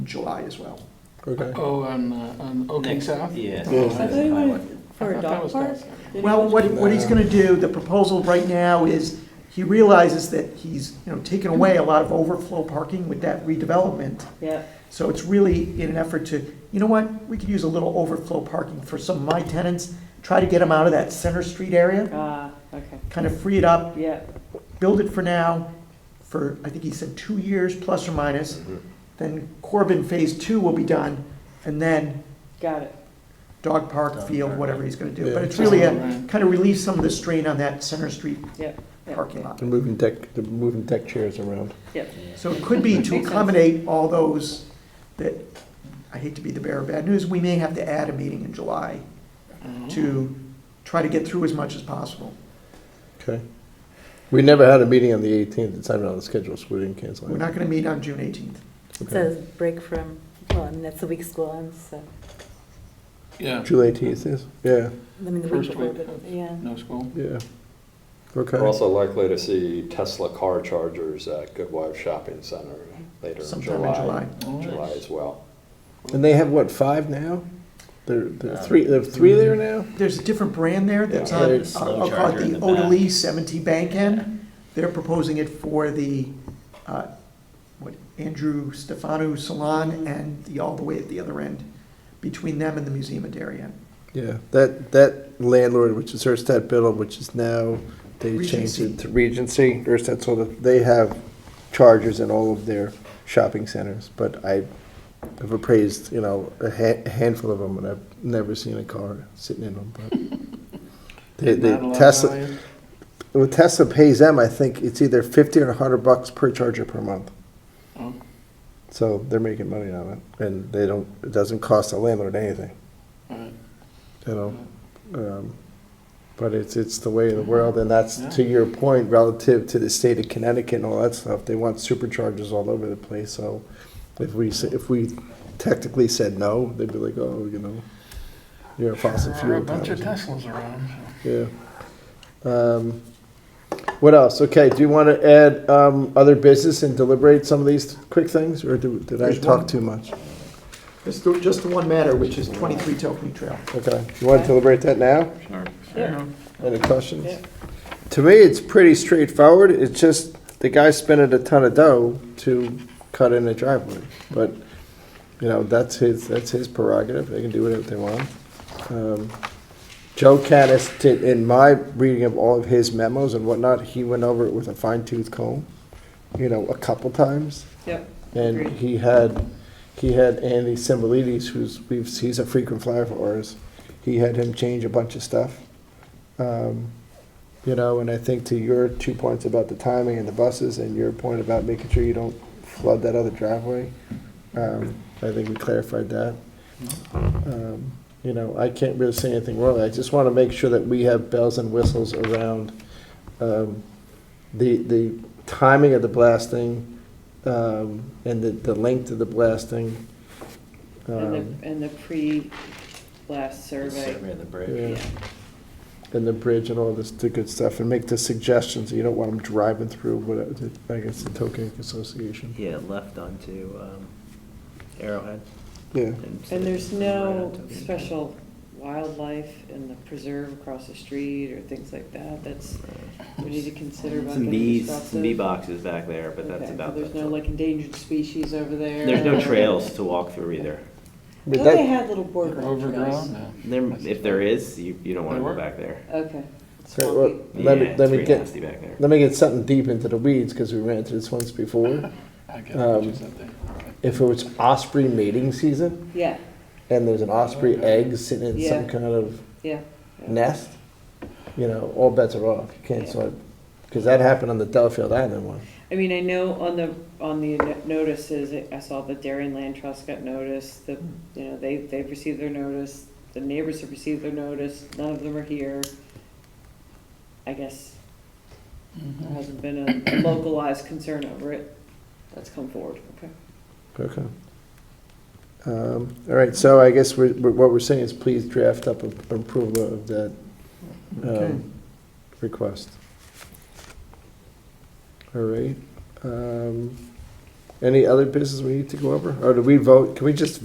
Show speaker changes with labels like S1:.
S1: July as well.
S2: Okay.
S3: Oh, on, uh, on Oak and
S4: Next-
S3: South?
S4: Yeah.
S2: Yeah.
S4: That's
S5: I thought
S4: the
S5: he
S4: highway.
S5: went for
S3: I thought
S5: a
S3: that
S5: dog
S3: was
S5: park.
S3: down there.
S5: Did he?
S1: Well, what, what he's gonna do, the proposal right now is, he realizes that he's, you know, taken away a lot of overflow parking with that redevelopment.
S5: Yeah,
S1: So it's really in an effort to, you know what, we could use a little overflow parking for some of my tenants, try to get them out of that Center Street area,
S5: ah, okay,
S1: kind of free it up,
S5: yeah,
S1: build it for now, for, I think he said, two years plus or minus. Then Corbin Phase Two will be done, and then
S5: got it.
S1: dog park,
S4: Dog
S1: field,
S4: park.
S1: whatever he's gonna do.
S2: Yeah.
S1: But it's really a,
S3: Right.
S1: kind of relieve some of the strain on that Center Street
S5: Yep, yep.
S1: parking lot.
S2: They're moving deck, they're moving deck chairs around.
S1: So it could be to
S5: Makes sense.
S1: accommodate all those that, I hate to be the bearer of bad news, we may have to add a meeting in July
S5: Mm.
S1: to try to get through as much as possible.
S2: Okay. We never had a meeting on the 18th. It's not even on the schedule, so we didn't cancel it.
S1: We're not gonna meet on June eighteenth.
S2: Okay.
S6: So break from, well, I mean, that's the week school ends, so,
S3: Yeah,
S2: July 18th is, yeah,
S6: I mean, the week
S3: First
S6: before,
S3: week.
S6: but, yeah.
S3: no school.
S2: yeah. Okay.
S7: We're also likely to see Tesla car chargers at Goodwife Shopping Center later in
S1: Sometime in
S7: July.
S3: July.
S7: July as well.
S2: And they have, what, five now? There, there are three, there are three there now?
S1: There's a different brand there that's
S2: Yeah,
S1: on,
S2: there's-
S1: I'll I'll call
S4: Charger
S1: it
S4: in
S1: the
S4: the back.
S1: Odeli seventy bank end. They're proposing it for the, uh, what, Andrew Stefano Salon and the, all the way at the other end, between them and the Museum of Darien.
S2: Yeah, that, that landlord, which is Erstad Biddle, which is now, they changed
S1: Regency.
S2: it to Regency, Erstad, so that they have chargers in all of their shopping centers, but I have appraised, you know, a ha- handful of them, and I've never seen a car sitting in them, but. They, they,
S3: Not a lot of
S2: Tesla,
S3: value.
S2: when Tesla pays them, I think it's either fifty or a hundred bucks per charger per month.
S3: Oh.
S2: So they're making money on it, and they don't, it doesn't cost the landlord anything,
S3: All right.
S2: you know? Um, But it's, it's the way of the world, and that's,
S3: Yeah.
S2: to your point, relative to the state of Connecticut and all that stuff, they want superchargers all over the place, so if we, s- if we technically said no, they'd be like, oh, you know, you're a fossil
S3: There are
S2: fuel.
S3: a bunch of
S2: power."
S3: Teslas around.
S2: Yeah. Um, What else? Okay, do you want to add um, other business and deliberate some of these quick things, or do- did I
S1: There's
S2: talk
S1: one.
S2: too much?
S1: Just, the- just the one matter, which is twenty-three Tokeny Trail.
S2: Okay, you want to deliberate that now?
S5: Yeah.
S2: Any questions?
S5: Yeah.
S2: To me, it's pretty straightforward. It's just the guy spending a ton of dough to cut in a driveway. But, you know, that's his, that's his prerogative. They can do whatever they want. Um, Joe Caddis did, in my reading of all of his memos and whatnot, he went over it with a fine tooth comb, you know, a couple times.
S5: Yep,
S2: And
S5: Agreed.
S2: he had, he had Andy Simbalides, who's, we've, he's a frequent flyer for ours. He had him change a bunch of stuff. Um, You know, and I think to your two points about the timing and the buses and your point about making sure you don't flood that other driveway, um, I think we clarified that. Um, You know, I can't really say anything wrong. I just want to make sure that we have bells and whistles around um, the, the timing of the blasting um, and the, the length of the blasting. um,
S5: and the, and the pre-blast survey.
S4: Survey of the bridge.
S2: Yeah.
S5: Yeah,
S2: and the bridge and all this the good stuff and make the suggestions. You don't want them driving through whatever, I guess, the Tokenic Association.
S4: Yeah, left onto um, Arrowhead.
S2: Yeah.
S4: instead
S5: And
S4: of
S5: there's
S4: right
S5: no
S4: onto the-
S5: special wildlife in the preserve across the street or things like that, that's, we need to consider about
S4: Some
S5: getting
S4: bees,
S5: disruptive.
S4: some bee boxes back there, but that's
S5: Okay,
S4: about.
S5: There's
S4: that's
S5: no
S4: all.
S5: like endangered species over there.
S4: There's
S5: or-
S4: no trails to walk through either.
S5: I
S2: But
S5: thought they
S2: that,
S5: had little
S3: They're
S5: boardwalk trails.
S3: Overgrown, no.
S4: There, if there is, you, you don't want to
S3: There
S4: go
S3: were.
S4: back there.
S5: Okay.
S2: Okay, well,
S5: Swampy.
S2: Let me-
S4: Yeah,
S2: let
S4: it's
S2: me
S4: pretty
S2: get-
S4: nasty back there.
S2: let me get something deep into the weeds because we ran into this once before.
S3: I get what you
S2: Um,
S3: said there. All right.
S2: If it was osprey mating season
S5: Yeah,
S2: and there's an osprey egg sitting in some
S5: Oh, Yeah.
S2: kind of
S5: yeah. yeah.
S2: nest, you know, all bets are off. You can't sort because that happened on the Delafield Island one.
S5: I mean, I know on the, on the no- notices, I saw the Darien Land Trust got notice, the, you know, they, they've received their notice, the neighbors have received their notice, none of them are here. I guess there
S3: Mm-hmm.
S5: hasn't been a localized concern over it that's come forward, okay?
S2: Okay. Um, All right, so I guess we're- we're- what we're saying is please draft up a- approval of that um,
S1: Okay.
S2: request. All right. um, Any other business we need to go over? Or do we vote, can we just